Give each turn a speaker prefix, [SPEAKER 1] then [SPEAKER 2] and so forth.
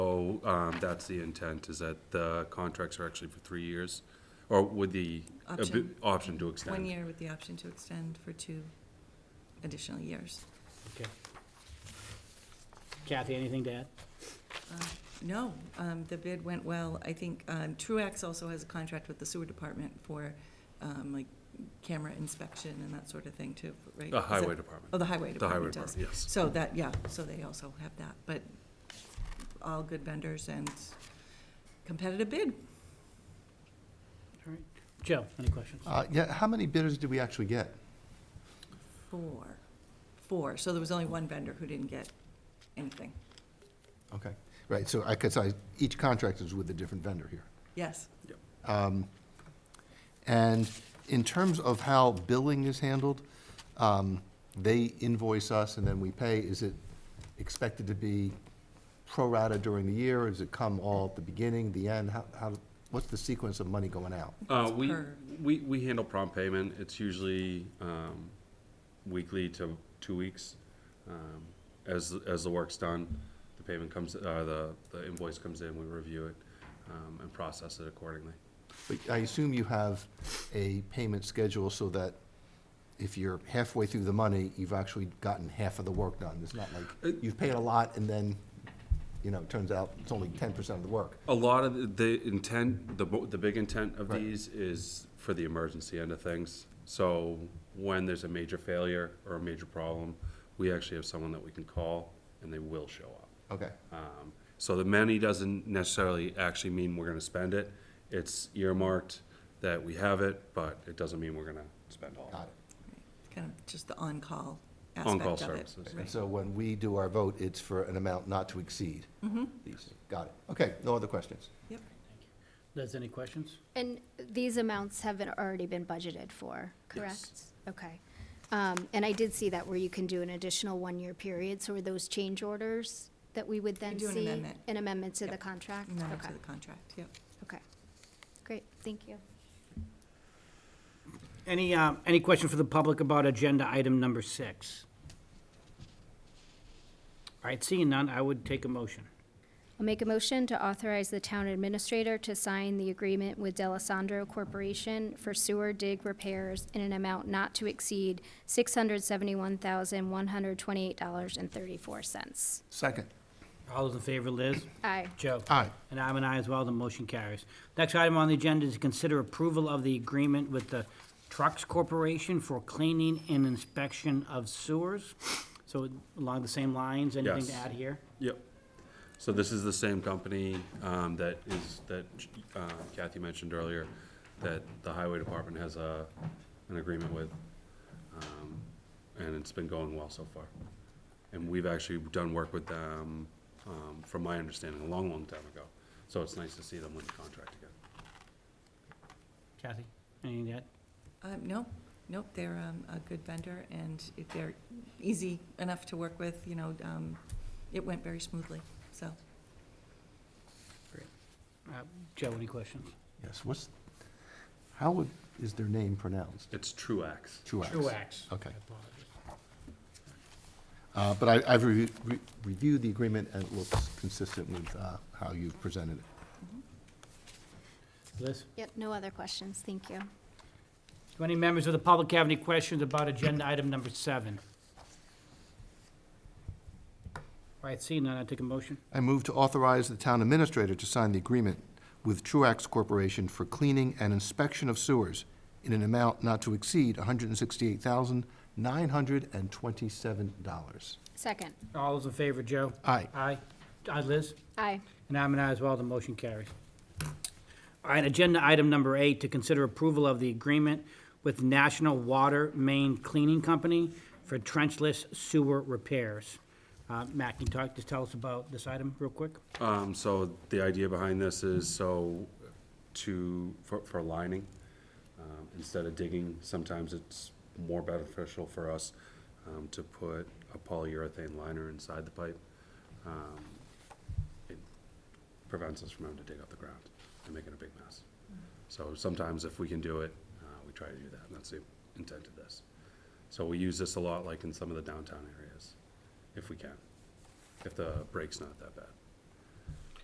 [SPEAKER 1] um, that's the intent, is that the contracts are actually for three years, or with the abi-
[SPEAKER 2] Option.
[SPEAKER 1] option to extend.
[SPEAKER 2] One year with the option to extend for two additional years.
[SPEAKER 3] Okay. Kathy, anything to add?
[SPEAKER 2] No, um, the bid went well. I think um, Truax also has a contract with the sewer department for um, like camera inspection and that sort of thing too, right? Is
[SPEAKER 1] The
[SPEAKER 2] that-
[SPEAKER 1] highway
[SPEAKER 2] Oh,
[SPEAKER 1] department,
[SPEAKER 2] the highway
[SPEAKER 1] the highway
[SPEAKER 2] department does.
[SPEAKER 1] department, yes.
[SPEAKER 2] So that, yeah, so they also have that, but all good vendors and competitive bid.
[SPEAKER 3] All right. Joe, any questions?
[SPEAKER 4] Uh, Yeah, how many bidders did we actually get?
[SPEAKER 2] Four, four. So there was only one vendor who didn't get anything.
[SPEAKER 4] Okay, right, so I, because I, each contract is with a different vendor here.
[SPEAKER 2] Yes.
[SPEAKER 4] And in terms of how billing is handled, um, they invoice us and then we pay. Is it expected to be pro-rata during the year? Does it come all at the beginning, the end? How, how, what's the sequence of money going out?
[SPEAKER 1] Uh,
[SPEAKER 2] It's
[SPEAKER 1] we,
[SPEAKER 2] per-
[SPEAKER 1] we, we handle prompt payment, it's usually, um, weekly to two weeks. Um, As, as the work's done, the payment comes, uh, the, the invoice comes in, we review it, um, and process it accordingly.
[SPEAKER 4] But I assume you have a payment schedule so that if you're halfway through the money, you've actually gotten half of the work done. It's not like you've paid a lot and then, you know, it turns out it's only ten percent of the work.
[SPEAKER 1] A lot of the- the intent, the, bo- the big intent of
[SPEAKER 4] Right.
[SPEAKER 1] these is for the emergency end of things. So when there's a major failure or a major problem, we actually have someone that we can call and they will show up.
[SPEAKER 4] Okay,
[SPEAKER 1] Um, So the many doesn't necessarily actually mean we're gonna spend it. It's earmarked that we have it, but it doesn't mean we're gonna spend all of
[SPEAKER 4] got
[SPEAKER 1] it.
[SPEAKER 4] it.
[SPEAKER 2] Kind of just the on-call aspect
[SPEAKER 1] On-call
[SPEAKER 2] of it.
[SPEAKER 1] services.
[SPEAKER 4] And
[SPEAKER 2] Right.
[SPEAKER 4] so when we do our vote, it's for an amount not to exceed. These, got it. Okay, no other questions?
[SPEAKER 2] Yep.
[SPEAKER 3] Liz, any questions?
[SPEAKER 5] And these amounts have been- already been budgeted for, correct? Okay. Um, And I did see that where you can do an additional one-year period, so are those change orders that we would then
[SPEAKER 2] do an
[SPEAKER 5] see?
[SPEAKER 2] amendment.
[SPEAKER 5] An amendment to the
[SPEAKER 2] Yep.
[SPEAKER 5] contract?
[SPEAKER 2] Amendment
[SPEAKER 5] Okay,
[SPEAKER 2] to the contract, yep.
[SPEAKER 5] okay. Great, thank you.
[SPEAKER 3] Any, uh, any question for the public about agenda item number six? All right, seeing none, I would take a motion.
[SPEAKER 5] I'll make a motion to authorize the town administrator to sign the agreement with Delisandro Corporation for sewer dig repairs in an amount not to exceed six hundred seventy-one thousand, one hundred twenty-eight dollars and thirty-four cents.
[SPEAKER 4] Second.
[SPEAKER 3] All those in favor, Liz?
[SPEAKER 5] Aye.
[SPEAKER 3] Joe?
[SPEAKER 4] Aye.
[SPEAKER 3] And I'm an aye as well, the motion carries. Next item on the agenda is to consider approval of the agreement with the Trucks Corporation for cleaning and inspection of sewers. So along the same lines, anything to
[SPEAKER 1] Yes.
[SPEAKER 3] add here?
[SPEAKER 1] Yep. So this is the same company um, that is, that uh, Kathy mentioned earlier, that the highway department has a, an agreement with. um, And it's been going well so far. And we've actually done work with them, um, from my understanding, a long, long time ago. So it's nice to see them win the contract again.
[SPEAKER 3] Kathy, anything to add?
[SPEAKER 2] Um, no, nope, they're, um, a good vendor and if they're easy enough to work with, you know, um, it went very smoothly, so.
[SPEAKER 3] Uh, Joe, any questions?
[SPEAKER 4] Yes, what's, how would, is their name pronounced?
[SPEAKER 1] It's Truax.
[SPEAKER 4] Truax.
[SPEAKER 3] Truax.
[SPEAKER 4] Okay. Uh, But I- I've reviewed- re- reviewed the agreement, and it looks consistent with uh, how you've presented it.
[SPEAKER 3] Liz?
[SPEAKER 5] Yep, no other questions, thank you.
[SPEAKER 3] Do any members of the public have any questions about agenda item number seven? All right, seeing none, I take a motion.
[SPEAKER 4] I move to authorize the town administrator to sign the agreement with Truax Corporation for cleaning and inspection of sewers in an amount not to exceed $168,927.
[SPEAKER 5] Second.
[SPEAKER 3] All those in favor, Joe?
[SPEAKER 4] Aye.
[SPEAKER 3] Aye. Aye, Liz?
[SPEAKER 5] Aye.
[SPEAKER 3] And I'm an aye as well, the motion carries. All right, agenda item number eight, to consider approval of the agreement with National Water Main Cleaning Company for trenchless sewer repairs. Uh, Matt, can you talk, just tell us about this item real quick?
[SPEAKER 1] Um, so the idea behind this is so to, for, for lining, um, instead of digging, sometimes it's more beneficial for us, um, to put a polyurethane liner inside the pipe. Um, It prevents us from having to dig up the ground and making a big mess. So sometimes if we can do it, uh, we try to do that, and that's the intent of this. So we use this a lot, like in some of the downtown areas, if we can, if the break's not that bad.